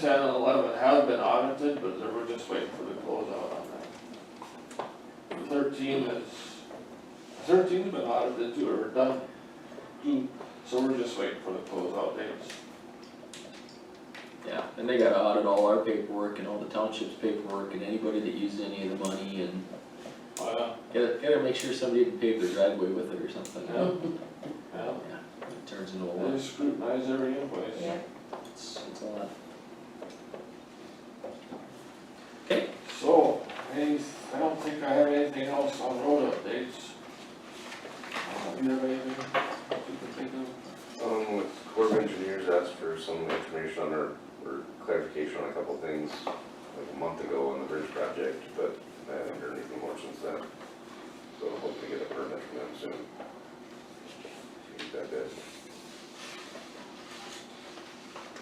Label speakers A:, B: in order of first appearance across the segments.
A: Ten and eleven have been audited, but they were just waiting for the closeout on that. Thirteen is, thirteen's been audited too, or done, too, so we're just waiting for the closeout dates.
B: Yeah, and they gotta audit all our paperwork and all the township's paperwork and anybody that used any of the money and
A: Uh,
B: gotta, gotta make sure somebody didn't pave their driveway with it or something.
A: yeah, yeah,
B: It turns into a
A: they
B: lot,
A: scrutinize every invoice.
C: Yeah,
B: it's, it's a lot.
A: So, any, I don't think I have anything else on road updates. Uh, Do you have anything you can think of?
D: Um, with Corps of Engineers asked for some information on or, or clarification on a couple things like a month ago on the bridge project, but I haven't heard anything more since then. So hopefully get a permit from them soon. Is that good?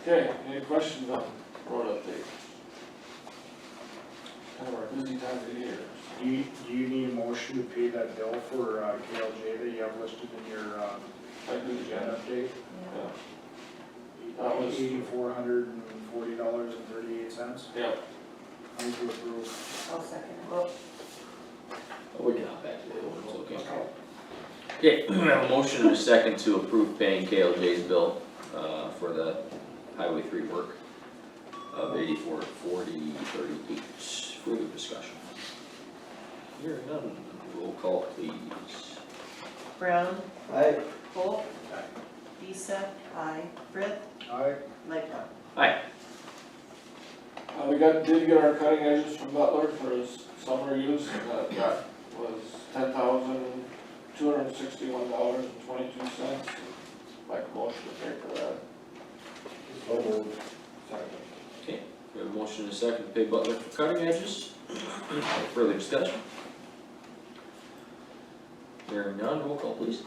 A: Okay, any questions on road updates? Kind of our busy time of the year.
E: Do you, do you need a motion to pay that bill for uh, KLJ that you have listed in your um,
A: I do,
E: agenda update?
C: yeah.
A: Yeah, That was-
E: Eighty-four hundred and forty dollars and thirty-eight cents.
A: yeah,
E: Move to approve.
C: I'll second it.
B: But we can hop back to the old ones, okay? Okay, we have a motion and a second to approve paying KLJ's bill, uh, for the Highway three work of eighty-four forty thirty-eight, further discussion. Here, none, roll call please.
C: Brown,
F: Aye.
C: Volk.
E: Aye.
C: Lisa. Aye. Brett.
E: Aye.
C: Lightfoot.
A: uh, we got, did get our cutting edges from Butler for his summer use, and that, that was ten thousand two hundred and sixty-one dollars and twenty-two cents. Like motion to pay for that.
F: So moved.
A: Second.
B: We have a motion and a second to pay Butler for cutting edges. Further discussion? Hearing none, roll call please.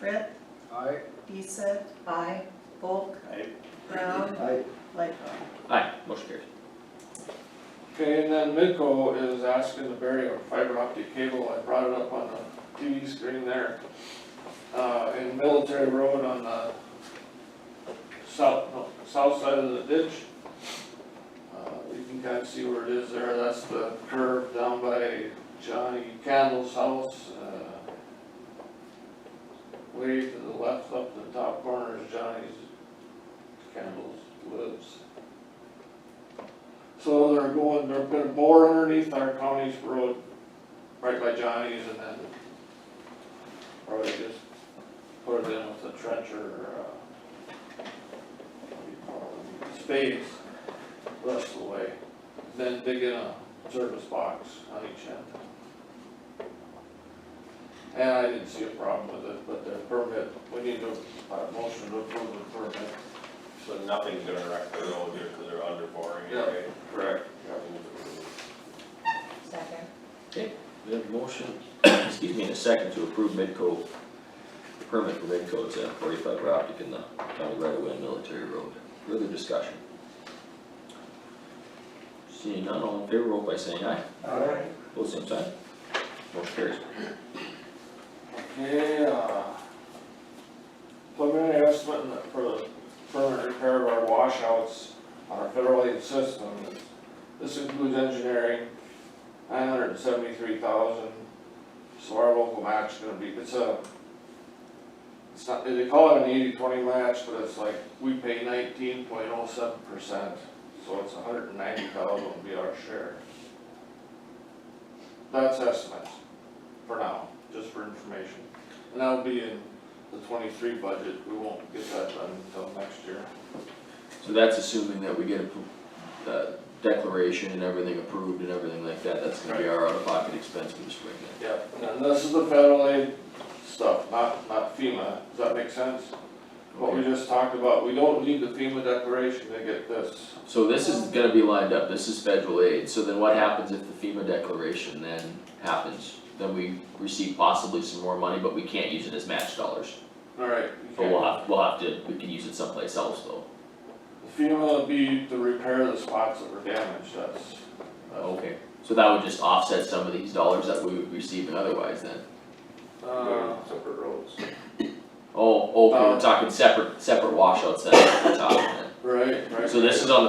C: Brett.
E: Aye.
C: Lisa. Aye. Volk.
E: Aye.
C: Brown,
F: Aye.
C: Lightfoot.
B: Aye, motion carries.
A: Okay, and then Midco is asking to bury a fiber optic cable, I brought it up on the TV screen there. Uh, in Military Road on the south, no, south side of the ditch. Uh, you can kind of see where it is there, that's the curve down by Johnny Candle's house, uh. Way to the left, up in the top corner is Johnny's Candle's lives. So they're going, they're gonna bore underneath our county's road, right by Johnny's and then probably just put it in with a trencher or, uh, what do you call them, spades, rest of the way. Then dig in a service box on each end. And I didn't see a problem with it, but the permit, we need to, uh, motion to approve the permit.
G: So nothing's gonna wreck the road here, cause they're under boring,
A: Yeah.
G: okay?
A: Correct.
C: Second.
B: We have a motion, excuse me, and a second to approve Midco, permit for Midco to forty fiber optic in the county right away on Military Road. Further discussion? Seeing none, all in favor, roll by saying aye.
F: Aye.
B: Both same sign. Motion carries.
A: Okay, uh, preliminary estimate in the- for the permanent repair of our washouts on our federal aid system. This includes engineering, nine hundred and seventy-three thousand, so our local match is gonna be, it's a, it's not, they call it an eighty-twenty match, but it's like, we pay nineteen point oh seven percent, so it's a hundred and ninety thousand will be our share. That's estimates, for now, just for information. And that'll be in the twenty-three budget, we won't get that done until next year.
B: So that's assuming that we get a, pro- uh, declaration and everything approved and everything like that, that's gonna be our out-of-pocket expense for the spring then.
A: Yep. And this is the federal aid stuff, not, not FEMA, does that make sense? What we
B: Okay.
A: just talked about, we don't need the FEMA declaration to get this.
B: So this is gonna be lined up, this is federal aid, so then what happens if the FEMA declaration then happens? Then we receive possibly some more money, but we can't use it as match dollars,
A: Alright.
B: but we'll have, we'll have to, we can use it someplace else though.
A: FEMA will be to repair the spots that were damaged, that's, that's.
B: Okay. So that would just offset some of these dollars that we would receive and otherwise then?
A: Uh,
D: Separate roads.
B: Oh, okay,
A: Uh,
B: we're talking separate, separate washouts then, at the top then.
H: Right, right.
A: So this is on the